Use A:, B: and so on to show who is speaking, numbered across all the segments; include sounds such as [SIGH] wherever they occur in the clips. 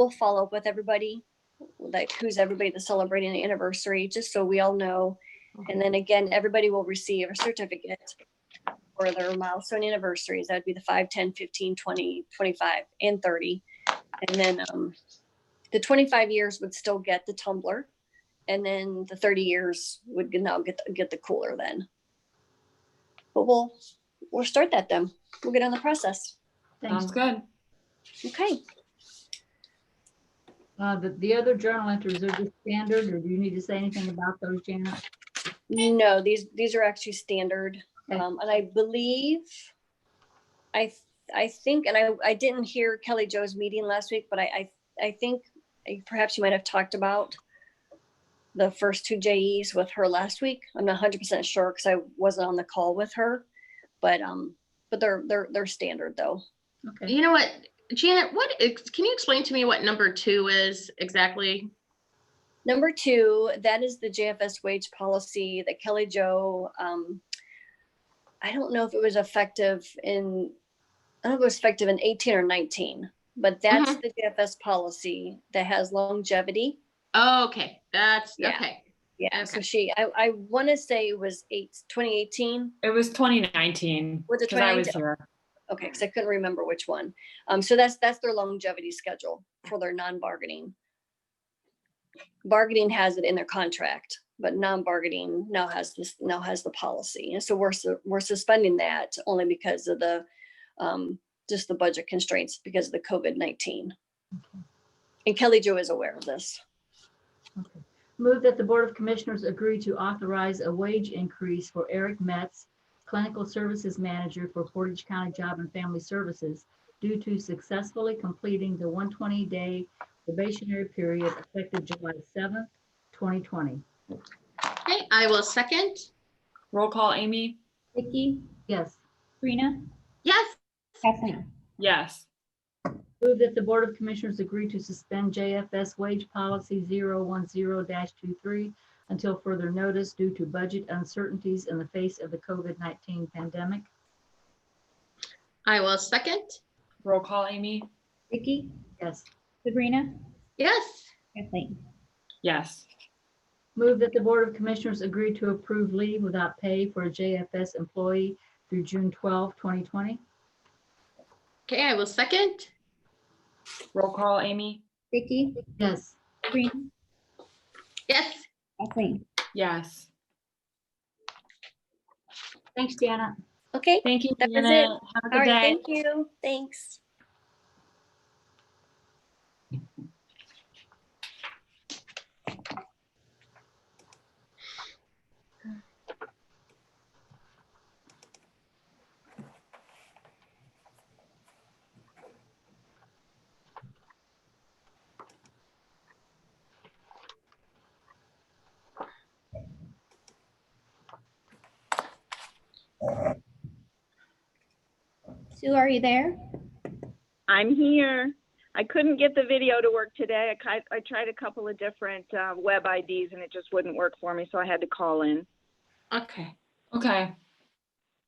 A: we'll follow up with everybody, like who's everybody that's celebrating the anniversary, just so we all know. And then again, everybody will receive a certificate for their milestone anniversaries. That'd be the 5, 10, 15, 20, 25, and 30. And then um, the 25 years would still get the tumbler. And then the 30 years would now get, get the cooler then. But we'll, we'll start that then. We'll get on the process.
B: Sounds good.
A: Okay.
B: Uh, the, the other journal entries are just standard, or do you need to say anything about those, Janet?
A: No, these, these are actually standard.
B: Okay.
A: Um, and I believe, I, th- I think, and I, I didn't hear Kelly Joe's meeting last week, but I, I, I think I- perhaps you might have talked about the first two JEs with her last week. I'm not hundred percent sure because I wasn't on the call with her, but, um, but they're, they're, they're standard though.
B: Okay.
C: You know what, Janet, what, ex- can you explain to me what number two is exactly?
A: Number two, that is the JFS wage policy that Kelly Joe, um, I don't know if it was effective in, I don't know if it was effective in eighteen or nineteen, but that's the JFS policy that has longevity.
C: Oh, okay, that's,
A: Yeah.
C: okay.
A: Yeah, so
C: Okay.
A: she, I, I want to say it was eight, 2018.
D: It was 2019.
A: Was it
D: 'cause I was
A: 2019?
D: here.
A: Okay, because I couldn't remember which one. Um, so that's, that's their longevity schedule for their non-bargaining. Bargaining has it in their contract, but non-bargaining now has this, now has the policy. And so we're, su- we're suspending that only because of the, um, just the budget constraints because of the COVID-19. And Kelly Jo is aware of this.
B: Okay. Move that the Board of Commissioners agree to authorize a wage increase for Eric Metz, Clinical Services Manager for Portage County Job and Family Services, due to successfully completing the 120-day probationary period effective July 7th, 2020.
C: Okay, I will second.
D: Roll call, Amy?
E: Vicky,
B: Yes.
E: Sabrina,
C: Yes,
E: Kathleen.
D: Yes.
B: Move that the Board of Commissioners agree to suspend JFS Wage Policy 010-23 until further notice due to budget uncertainties in the face of the COVID-19 pandemic.
C: I will second.
D: Roll call, Amy?
E: Vicky,
B: Yes.
E: Sabrina,
C: Yes,
E: Kathleen.
D: Yes.
B: Move that the Board of Commissioners agree to approve leave without pay for a JFS employee through June 12, 2020.
C: okay, I will second.
D: Roll call, Amy?
E: Vicky,
B: Yes.
E: Sabrina,
C: Yes,
E: Kathleen.
D: Yes.
B: Thanks, Janet.
A: Okay,
D: Thank you,
A: That was it.
D: Janet.
A: all
D: Have a good
A: right,
D: day.
A: thank you. Thanks.
E: Sue, are you there?
F: I'm here. I couldn't get the video to work today. I, ki- I tried a couple of different uh, web IDs and it just wouldn't work for me, so I had to call in.
C: okay.
D: Okay.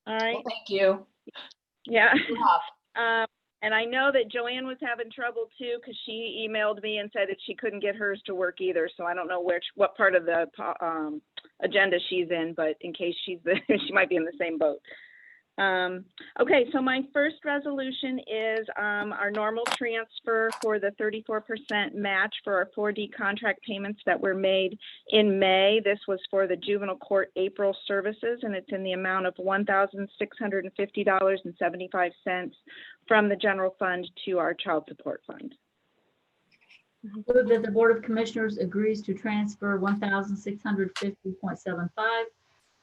F: All right.
D: Well, thank you.
F: Yeah. [LAUGHS]
D: Good luck.
F: Um, and I know that Joanne was having trouble too because she emailed me and said that she couldn't get hers to work either. So I don't know which what part of the po- um, agenda she's in, but in case she's [LAUGHS] the, she might be in the same boat. Um, okay, so my first resolution is um, our normal transfer for the 34% match for our 4D contract payments that were made in May. This was for the juvenile court April services, and it's in the amount of $1,650.75 from the general fund to our child support fund.
B: Move that the Board of Commissioners agrees to transfer 1,650.75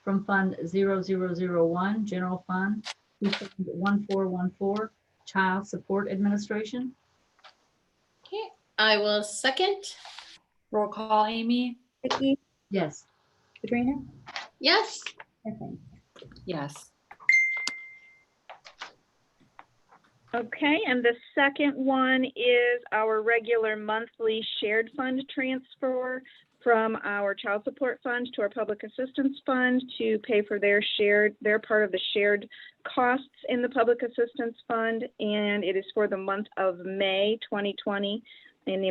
B: from Fund 0001, General Fund, to Fund 1414, Child Support Administration.
C: Okay, I will second.
D: Roll call, Amy?
E: Vicky,
B: Yes.
E: Sabrina,
C: Yes,
E: Kathleen.
D: Yes.
F: Okay, and the second one is our regular monthly shared fund transfer from our child support fund to our public assistance fund to pay for their shared, their part of the shared costs in the public assistance fund. And it is for the month of May 2020 in the